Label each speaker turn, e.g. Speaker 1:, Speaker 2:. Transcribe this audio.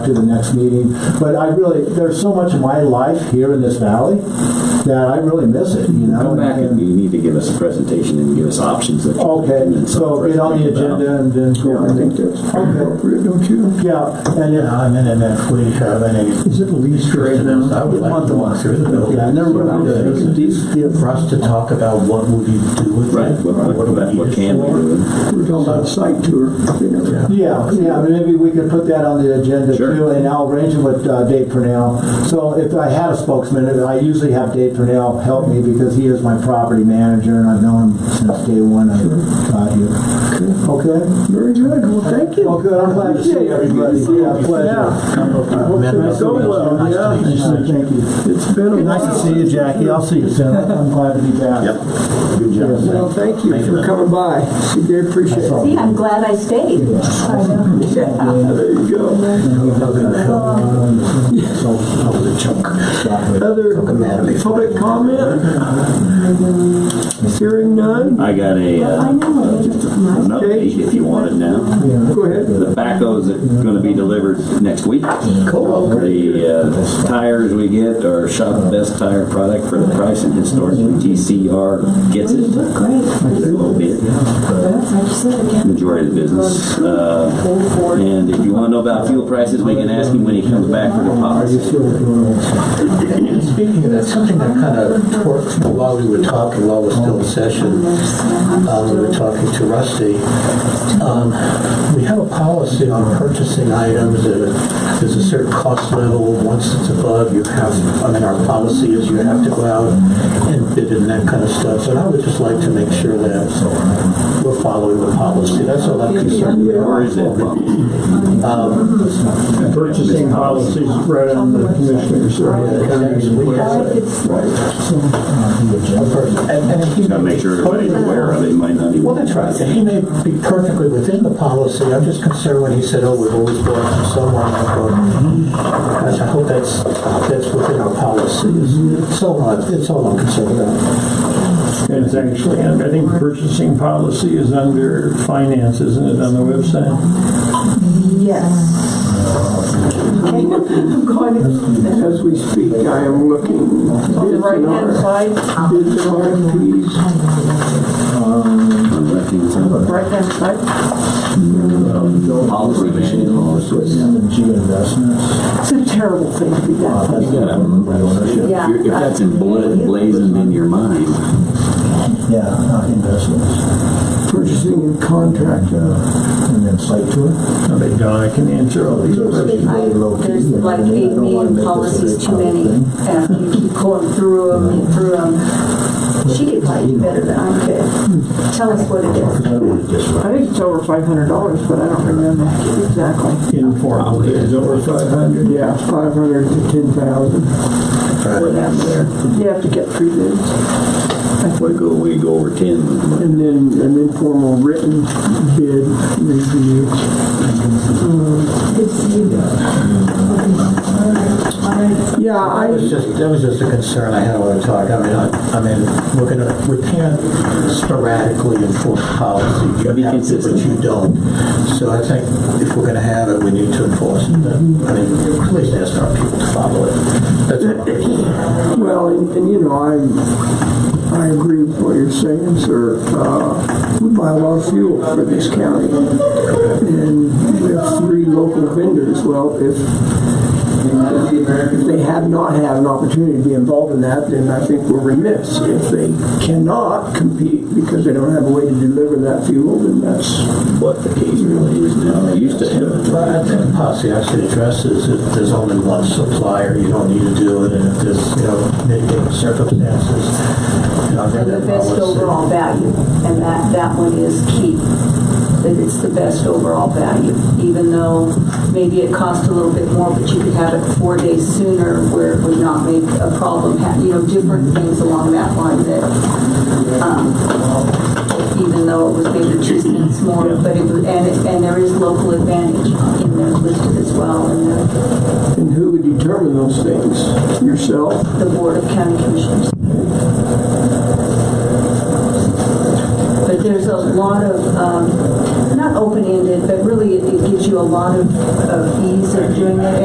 Speaker 1: to the next meeting. But I really, there's so much of my life here in this valley that I really miss it, you know?
Speaker 2: Come back and you need to give us a presentation and give us options that. you can
Speaker 1: Okay,
Speaker 2: then
Speaker 1: so
Speaker 2: sort of
Speaker 1: get on the
Speaker 2: think about.
Speaker 1: agenda and then.
Speaker 3: Yeah, I think that's
Speaker 1: Okay.
Speaker 3: appropriate, don't you?
Speaker 1: Yeah, and
Speaker 4: Yeah,
Speaker 1: yeah,
Speaker 4: I'm in it next week, have any. Is it least right now? I would like to walk through the building.
Speaker 1: yeah, I never really did. These- yeah.
Speaker 4: For us to talk about what would you do with it?
Speaker 2: Right, what,
Speaker 4: or do we
Speaker 2: what, what
Speaker 4: use
Speaker 2: can we
Speaker 4: for?
Speaker 2: do?
Speaker 3: We're talking about a site tour. you know.
Speaker 1: Yeah, yeah, maybe we could put that on the agenda
Speaker 2: Sure.
Speaker 1: too, and I'll arrange it with uh, Dave Purnell. So if I had a spokesman, I usually have Dave Purnell help me because he is my property manager and I've known him since day one I got here. Okay?
Speaker 3: Very good, well, thank you.
Speaker 1: Well, good, I'm glad to see everybody. Yeah, pleasure.
Speaker 4: Met
Speaker 1: Okay,
Speaker 4: most
Speaker 1: so
Speaker 4: of us.
Speaker 1: well,
Speaker 4: Uh, Nice to
Speaker 1: yeah.
Speaker 4: meet you.
Speaker 1: Thank you.
Speaker 3: It's been a
Speaker 1: Nice to
Speaker 3: while.
Speaker 1: see you, Jackie. I'll see you soon. I'm glad to be back.
Speaker 2: Good job.
Speaker 3: Well, thank you for coming by. See, They appreciate it.
Speaker 5: See, I'm glad I stayed.
Speaker 3: There you go.
Speaker 1: So, the chunk.
Speaker 3: Other public comment? Hearing none?
Speaker 2: I got a,
Speaker 5: I
Speaker 2: uh,
Speaker 5: know, it
Speaker 2: just
Speaker 5: is.
Speaker 2: a- an update if you want it now.
Speaker 3: Go ahead.
Speaker 2: The backhoes that are gonna be delivered next week. The, uh, tires we get are shop best tire product for the price and historically TCR gets it.
Speaker 5: Look great.
Speaker 2: It's a little bit,
Speaker 5: I just said again.
Speaker 2: majority of the business. Uh,
Speaker 5: Go for it.
Speaker 2: And if you want to know about fuel prices, we can ask him when he comes back for the policy.
Speaker 4: Speaking of that, something that kind of worked while we were talking, while we're still in session, um, we were talking to Rusty. Um, we have a policy on purchasing items, uh, there's a certain cost level, once it's above, you have, I mean, our policy is you have to go out and bid and that kind of stuff, so I would just like to make sure that we're following the policy, that's all I'm concerned with.
Speaker 2: Where is that from?
Speaker 6: Purchasing policies right on the commissioners.
Speaker 4: We have it.
Speaker 5: It's-
Speaker 4: And, and if you.
Speaker 2: Got to make sure everybody's aware of it, might not even.
Speaker 4: Well, that's right, and he may be perfectly within the policy, I'm just concerned when he said, oh, we've always bought from someone, I thought, gosh, I hope that's, that's within our policies. So, uh, it's all I'm concerned about.
Speaker 6: And It's actually, I think purchasing policy is under finance, isn't it, on the website?
Speaker 5: Yes. I'm going
Speaker 3: As we speak, I am looking bids
Speaker 5: to the
Speaker 3: and
Speaker 5: right hand
Speaker 3: RFPs.
Speaker 5: side,
Speaker 3: Bids and RFPs.
Speaker 5: right hand side.
Speaker 2: Policy manual.
Speaker 1: Investments.
Speaker 5: It's a terrible thing to be done.
Speaker 2: You gotta remember
Speaker 5: Yeah.
Speaker 2: If if that's in blood blazing in your mind,
Speaker 1: Yeah, not investments.
Speaker 3: Purchasing and contract.
Speaker 1: uh, And then site tour.
Speaker 6: I bet Donna can answer all these questions.
Speaker 5: I- There's like eight million policies too many, and you keep going through them and through them. She could probably do better than I could. Tell us what it is.
Speaker 7: I think it's over five hundred dollars, but I don't remember exactly.
Speaker 6: Informal bids over 500.
Speaker 7: Yeah, five hundred to ten thousand.
Speaker 2: what happened there?
Speaker 7: You have to get three bids,
Speaker 2: We go, we go over ten.
Speaker 7: and then an informal written bid review.
Speaker 5: Good to see you.
Speaker 7: Yeah,
Speaker 4: That was
Speaker 7: I,
Speaker 4: just, that was just a concern I had while we talked, I mean, I, I mean, we're gonna, we can't sporadically enforce policy. You
Speaker 2: Be
Speaker 4: have to, but
Speaker 2: consistent.
Speaker 4: you don't. So I think if we're gonna have it, we need to enforce it, I mean, at least ask our people to follow it. That's all I'm concerned.
Speaker 7: well, and, and you know, I, I agree with what you're saying, sir. Uh, we buy a lot of fuel for this county, and we have three local vendors. Well, if If they have not had an opportunity to be involved in that, then I think we're remiss. If they cannot compete because they don't have a way to deliver that fuel, then that's,
Speaker 2: What the case really is now, they used to have.
Speaker 4: Well, I think the policy actually addresses if there's only one supplier, you don't need to do it, and if there's, you know, mitigating circumstances. you know, I think
Speaker 5: And the
Speaker 4: that
Speaker 5: best
Speaker 4: policy-
Speaker 5: overall value, and that, that one is key, that it's the best overall value, even though maybe it cost a little bit more, but you could have it four days sooner where it would not make a problem, ha- you know, different things along that line that, um, even though it was maybe two cents more, but it was, and, it- and there is local advantage in there listed as well, and
Speaker 7: and who would determine those things? Yourself?
Speaker 5: the, the Board of County Commissioners. But there's a lot of, um, not open-ended, but really it it gives you a lot of, of ease of doing it.